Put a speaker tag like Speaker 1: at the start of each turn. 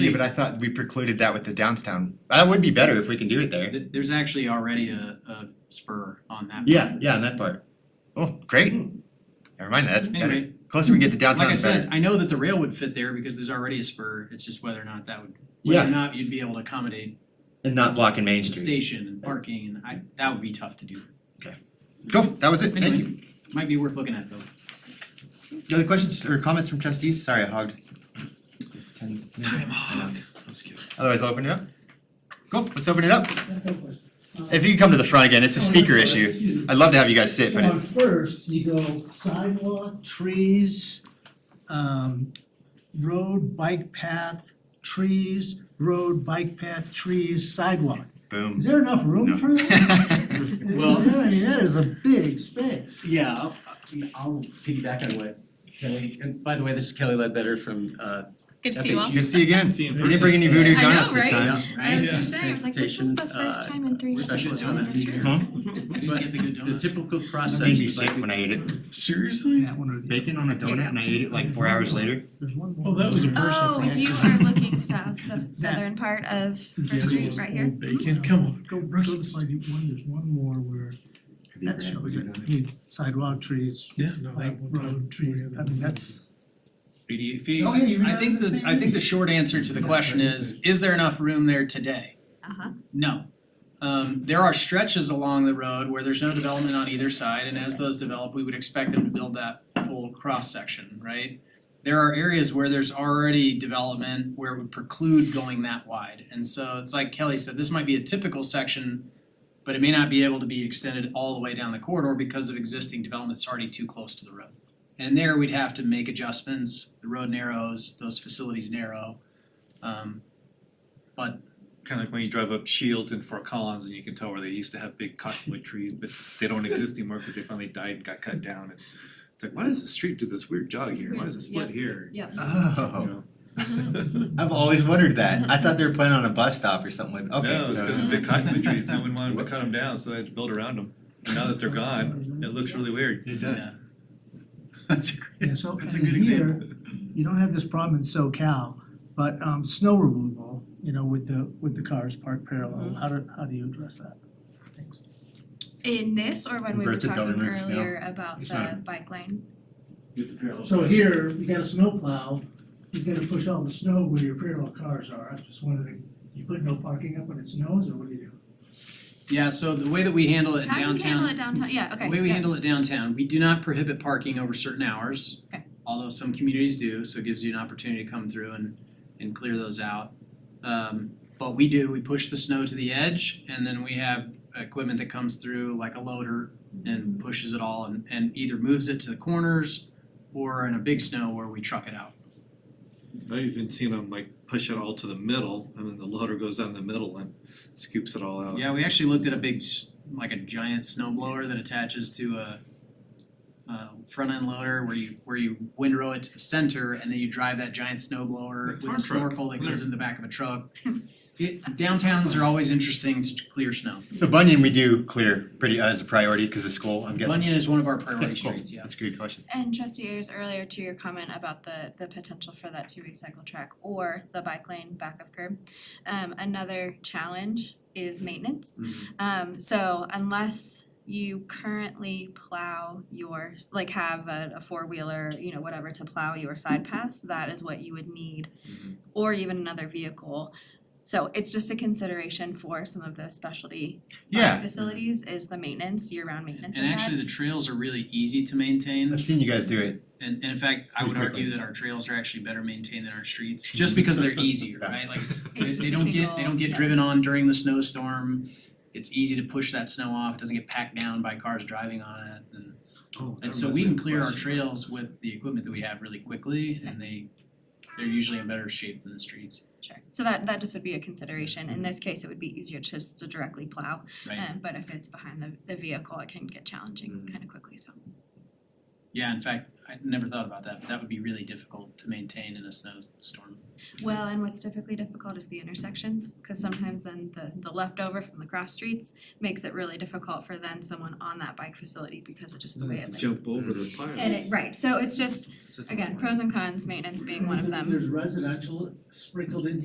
Speaker 1: Yeah, but I thought we precluded that with the downtown. That would be better if we can do it there.
Speaker 2: Th- There's actually already a, a spur on that.
Speaker 1: Yeah, yeah, on that part. Oh, great. Never mind, that's better.
Speaker 2: Anyway,
Speaker 1: Closer we get to downtown,
Speaker 2: like I
Speaker 1: the better.
Speaker 2: said, I know that the rail would fit there because there's already a spur, it's just whether or not that would, whether
Speaker 1: Yeah.
Speaker 2: or not you'd be able to accommodate
Speaker 1: And not blocking Main
Speaker 2: the
Speaker 1: Street.
Speaker 2: station and parking, and I, that would be tough to do.
Speaker 1: Cool, that was it, thank you.
Speaker 2: Anyway, might be worth looking at though.
Speaker 1: Any Other questions or comments from trustees? Sorry, I hogged. Ten minutes.
Speaker 2: Let's go.
Speaker 1: Otherwise, I'll open it up. Cool, let's open it up. If
Speaker 3: It's
Speaker 1: you can come to the front again, it's a speaker issue. I'd love to have you guys sit,
Speaker 3: So
Speaker 1: but
Speaker 3: on
Speaker 1: it-
Speaker 3: first, you go sidewalk, trees, um, road, bike path, trees, road, bike path, trees, sidewalk. Is
Speaker 1: boom.
Speaker 3: there enough
Speaker 1: No.
Speaker 3: room for that?
Speaker 4: Well-
Speaker 3: Yeah, I mean, that is a big space.
Speaker 4: Yeah, I'll, I'll piggyback on what Kelly, and by the way, this is Kelly Ledbetter from, uh,
Speaker 5: Good to see you all.
Speaker 4: FHU.
Speaker 1: Good to see you again.
Speaker 6: See you in
Speaker 1: We didn't bring any voodoo
Speaker 5: I know,
Speaker 1: donuts this
Speaker 5: right?
Speaker 1: time.
Speaker 4: Yeah,
Speaker 5: I was
Speaker 4: right?
Speaker 5: just saying, I was like, this is the
Speaker 4: Transportation,
Speaker 5: first time in three years.
Speaker 4: uh,
Speaker 5: I've
Speaker 4: professional
Speaker 5: been
Speaker 4: donuts.
Speaker 5: to
Speaker 4: here.
Speaker 2: Mm-hmm.
Speaker 5: a
Speaker 2: I didn't get the good
Speaker 4: uh, The
Speaker 2: donuts.
Speaker 4: typical
Speaker 1: It
Speaker 4: process.
Speaker 1: made me
Speaker 4: is
Speaker 1: sick
Speaker 4: like-
Speaker 1: when I ate it.
Speaker 6: Seriously?
Speaker 3: That one or the other.
Speaker 1: Bacon on a donut and I ate it like four hours later.
Speaker 3: There's one more.
Speaker 6: Oh, that was a personal
Speaker 5: Oh, you are looking south, the southern part of
Speaker 3: Yeah.
Speaker 5: First Street right here.
Speaker 4: mm-hmm.
Speaker 6: Bacon, come on,
Speaker 3: Go, go to slide one, there's one more where that shows it, I mean, sidewalk, trees,
Speaker 6: Yeah, no,
Speaker 3: bike, road, trees, I mean, that's.
Speaker 1: Oh, yeah, you
Speaker 2: I
Speaker 1: realized
Speaker 2: think the,
Speaker 1: same
Speaker 2: I think
Speaker 1: thing.
Speaker 2: the short answer to the question is, is there enough room there today?
Speaker 5: Uh-huh.
Speaker 2: No. Um, there are stretches along the road where there's no development on either side, and as those develop, we would expect them to build that full cross-section, right? There are areas where there's already development where it would preclude going that wide, and so it's like Kelly said, this might be a typical section, but it may not be able to be extended all the way down the corridor because of existing development that's already too close to the road. And there, we'd have to make adjustments, the road narrows, those facilities narrow, um,
Speaker 6: kinda like when you drive up Shields and Fort Collins and you can tell where they used to have big cottonwood trees, but they don't exist anymore because they finally died and got cut down and it's like, why does the street do this weird jog here, why does it split here? You
Speaker 1: Oh,
Speaker 6: know?
Speaker 5: Uh-huh.
Speaker 1: I've always wondered that. I thought they were planning on a bus stop or something like, okay.
Speaker 6: No, it's
Speaker 1: so-
Speaker 6: because big cottonwood trees, no one wanted to cut
Speaker 1: Whoops.
Speaker 6: them down, so they had to build around them, and now that they're gone, it looks really weird.
Speaker 1: It does.
Speaker 2: That's a great.
Speaker 3: Yeah, so, and
Speaker 2: That's a good
Speaker 3: then here, you don't have this problem in SoCal, but um snow removal, you know, with the with the cars parked
Speaker 5: Mm-hmm.
Speaker 3: parallel, how do how do you address that? Thanks.
Speaker 5: In this, or when we were
Speaker 1: Inverted
Speaker 5: talking
Speaker 1: government is now-
Speaker 5: earlier about
Speaker 1: it's not-
Speaker 5: the bike lane?
Speaker 3: So here, you got a snowplow, he's gonna push all the snow where your parallel cars are, I'm just wondering, you put no parking up when it snows, or what do you do?
Speaker 2: Yeah, so the way that we handle it in
Speaker 5: How do you handle
Speaker 2: downtown,
Speaker 5: it downtown? Yeah, okay.
Speaker 2: the way we
Speaker 5: yeah.
Speaker 2: handle it downtown, we do not prohibit parking over certain hours.
Speaker 5: Okay.
Speaker 2: Although some communities do, so it gives you an opportunity to come through and and clear those out. Um but we do, we push the snow to the edge and then we have equipment that comes through like a loader and pushes it all and and either moves it to the corners or in a big snow where we truck it out.
Speaker 6: I've even seen them like push it all to the middle, and then the loader goes down the middle and scoops it all out.
Speaker 2: Yeah, we actually looked at a big, s- like a giant snow blower that attaches to a uh front end loader where you where you windrow it to the center and then you drive that giant snow blower
Speaker 6: Like
Speaker 2: with
Speaker 6: farm
Speaker 2: a
Speaker 6: truck.
Speaker 2: snorkel that goes in the back of a truck. It downtowns are always interesting to clear snow.
Speaker 1: So Bunyan, we do clear pretty uh, as a priority because of school, I'm guessing.
Speaker 2: Bunyan is one of our priority
Speaker 1: Okay, cool.
Speaker 2: streets, yeah.
Speaker 1: That's a good question.
Speaker 5: And trustee Ayers, earlier to your comment about the the potential for that two-way cycle track or the bike lane back of curb, um another challenge is maintenance.
Speaker 2: Mm-hmm.
Speaker 5: Um so unless you currently plow your, like have a a four-wheeler, you know, whatever to plow your side paths, that is what you would need.
Speaker 2: Mm-hmm.
Speaker 6: Mhm.
Speaker 5: Or even another vehicle. So it's just a consideration for some of those specialty park
Speaker 1: Yeah,
Speaker 5: facilities is the maintenance, year-round maintenance of
Speaker 2: And
Speaker 5: that.
Speaker 2: actually, the trails are really easy to maintain.
Speaker 1: I've seen you guys do it.
Speaker 2: And and in fact, I
Speaker 1: Pretty
Speaker 2: would
Speaker 1: quickly.
Speaker 2: argue that our trails are actually better maintained than our streets, just because they're easier, right? Like it's
Speaker 5: It's
Speaker 2: they-
Speaker 5: just
Speaker 2: they
Speaker 5: a
Speaker 2: don't get, they
Speaker 5: single-
Speaker 2: don't get
Speaker 5: yeah.
Speaker 2: driven on during the snowstorm. It's easy to push that snow off, it doesn't get packed down by cars driving on it and
Speaker 6: Oh, that
Speaker 2: and so
Speaker 6: reminds
Speaker 2: we
Speaker 6: me of
Speaker 2: can
Speaker 6: a
Speaker 2: clear our
Speaker 6: question.
Speaker 2: trails with the equipment that we have really quickly and they they're usually in better shape than the streets,
Speaker 5: Sure, so that that just would be a consideration, in this case, it would be easier just to directly plow,
Speaker 2: right?
Speaker 5: um but if it's behind the the vehicle, it can get challenging
Speaker 1: Mm.
Speaker 5: kind of quickly, so.
Speaker 2: Yeah, in fact, I never thought about that, but that would be really difficult to maintain in a snowstorm.
Speaker 5: Well, and what's typically difficult is the intersections, cause sometimes then the the leftover from the cross streets makes it really difficult for then someone on that bike facility because of just the way it lays.
Speaker 6: Jump over the piles.
Speaker 5: And it, right, so it's just,
Speaker 6: It's just
Speaker 5: again,
Speaker 6: annoying.
Speaker 5: pros and cons, maintenance being one of them.
Speaker 3: There's residential sprinkled in